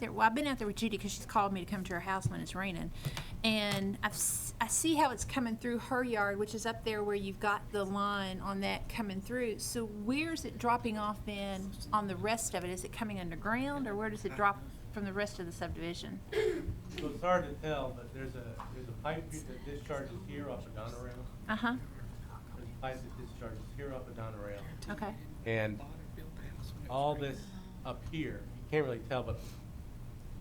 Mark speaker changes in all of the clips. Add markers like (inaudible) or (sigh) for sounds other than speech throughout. Speaker 1: there, well, I've been out there with Judy because she's called me to come to her house when it's raining. And I've, s- I see how it's coming through her yard, which is up there where you've got the line on that coming through. So where's it dropping off then on the rest of it? Is it coming underground or where does it drop from the rest of the subdivision?
Speaker 2: So it's hard to tell, but there's a, there's a pipe here that discharges here off of Donerail.
Speaker 1: Uh-huh,
Speaker 2: There's a pipe that discharges here off of Donerail.
Speaker 1: okay.
Speaker 2: And all this up here, you can't really tell, but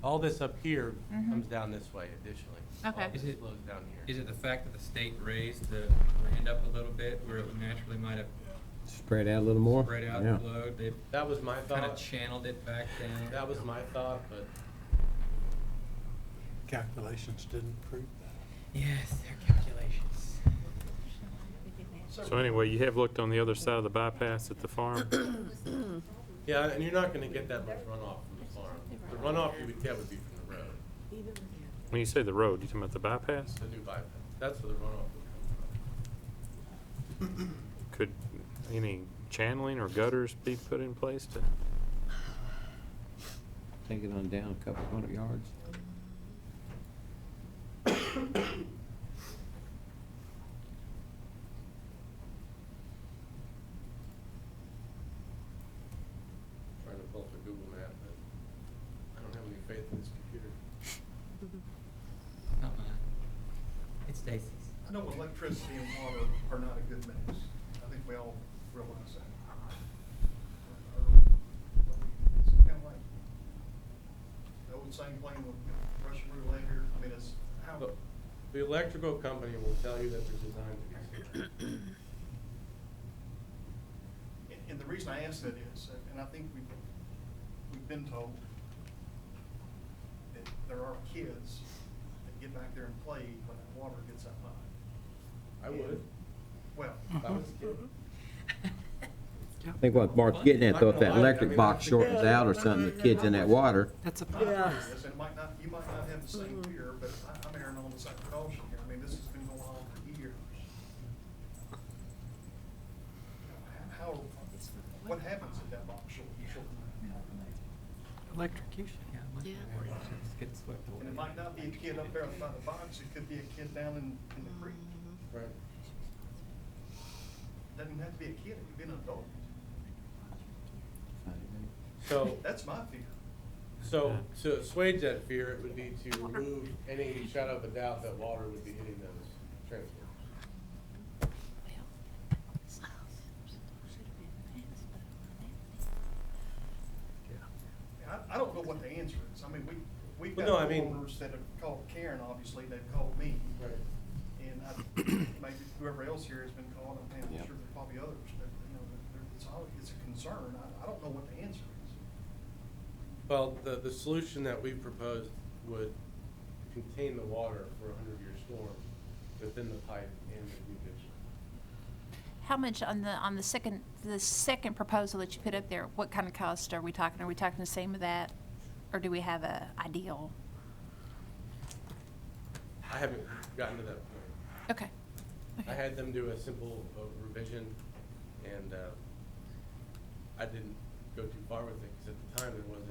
Speaker 2: all this up here
Speaker 1: Mhm.
Speaker 2: comes down this way additionally.
Speaker 1: Okay.
Speaker 2: All this
Speaker 3: Is it-
Speaker 2: flows down here.
Speaker 3: Is it the fact that the state raised the land up a little bit where it would naturally might have
Speaker 4: Spread out a little more?
Speaker 3: spread out
Speaker 4: Yeah.
Speaker 3: the load? They
Speaker 2: That was my
Speaker 3: kind of
Speaker 2: thought.
Speaker 3: channeled it back down.
Speaker 2: That was my thought, but
Speaker 5: Calculations didn't prove that.
Speaker 3: Yes, their calculations.
Speaker 6: So anyway, you have looked on the other side of the bypass at the farm?
Speaker 2: (coughs) Yeah, and you're not gonna get that much runoff from the farm. The runoff you would get would be from the road,
Speaker 6: When you say the road, you talking about the bypass?
Speaker 2: the new bypass. That's where the runoff would come from.
Speaker 6: Could any channeling or gutters be put in place to?
Speaker 4: Take it on down a couple hundred yards.
Speaker 2: trying to pull up a Google map, but I don't have any faith in this computer.
Speaker 3: Not mine. It's Stacy's.
Speaker 7: I know electricity and water are not a good mix. I think we all realize that. It's kind of like The old saying playing with Russian roulette here, I mean, it's how,
Speaker 2: Look, The electrical company will tell you that they're designed to be. secure.
Speaker 7: and, and the reason I ask that is, and I think we've, we've been told that there are kids that get back there and play when that water gets that high.
Speaker 2: I would,
Speaker 7: Well,
Speaker 2: if I was a kid.
Speaker 4: I think what Bart's getting at though, if that electric box shortens out or something, the kid's in that water,
Speaker 8: That's a
Speaker 7: Yeah. It might not, you might not have the same fear, but I- I'm erring on the side of caution here. I mean, this has been going on for years. How, what happens if that box short, short?
Speaker 8: electrocution.
Speaker 3: Yeah, it must be where it just gets swept away.
Speaker 7: And it might not be a kid up there by the box, it could be a kid down in, in the creek.
Speaker 2: Right.
Speaker 7: Doesn't have to be a kid, it could be an adult.
Speaker 2: So,
Speaker 7: That's my fear.
Speaker 2: so, to assuage that fear, it would be to remove any shadow of a doubt that water would be hitting those transformers.
Speaker 7: And I, I don't know what the answer is. I mean, we, we've
Speaker 2: Well,
Speaker 7: got
Speaker 2: no, I mean-
Speaker 7: homeowners that have called Karen, obviously, they've called me.
Speaker 2: Right.
Speaker 7: And I, maybe whoever else here has been called, I'm I'm
Speaker 4: Yeah.
Speaker 7: sure there are probably others, but, you know, there- it's all, it's a concern. I, I don't know what the answer is.
Speaker 2: Well, the, the solution that we proposed would contain the water for a hundred-year storm within the pipe and the new ditch.
Speaker 1: How much on the, on the second, the second proposal that you put up there, what kind of cost are we talking? Are we talking the same of that? Or do we have a ideal?
Speaker 2: I haven't gotten to that point.
Speaker 1: Okay.
Speaker 2: I had them do a simple uh, revision, and uh, I didn't go too far with it, because at the time, there wasn't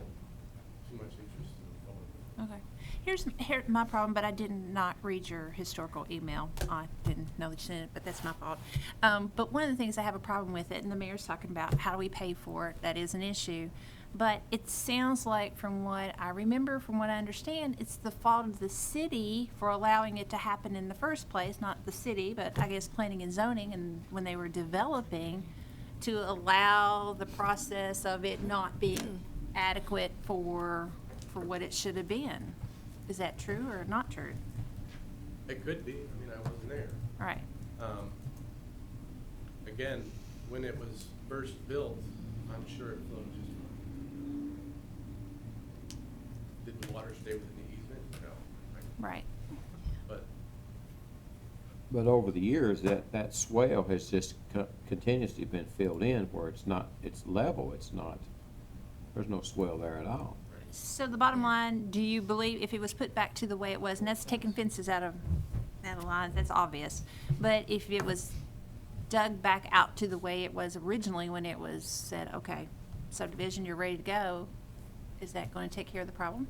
Speaker 2: too much interest in the forward.
Speaker 1: Okay. Here's, here, my problem, but I did not read your historical email. I didn't know that you sent it, but that's my fault. Um, but one of the things I have a problem with it, and the mayor's talking about how do we pay for it, that is an issue. But it sounds like from what I remember, from what I understand, it's the fault of the city for allowing it to happen in the first place, not the city, but I guess planning and zoning and when they were developing to allow the process of it not being adequate for, for what it should have been. Is that true or not true?
Speaker 2: It could be, I mean, I wasn't there.
Speaker 1: Right,
Speaker 2: Um, Again, when it was first built, I'm sure it flowed just fine. Did the water stay within the easement? No.
Speaker 1: right.
Speaker 2: But
Speaker 4: But over the years, that, that swale has just co- continuously been filled in where it's not, it's level, it's not, there's no swale there at all.
Speaker 1: So the bottom line, do you believe if it was put back to the way it was, and that's taking fences out of, out of lines, that's obvious. But if it was dug back out to the way it was originally when it was said, okay, subdivision, you're ready to go, Is that going to take care of the problem?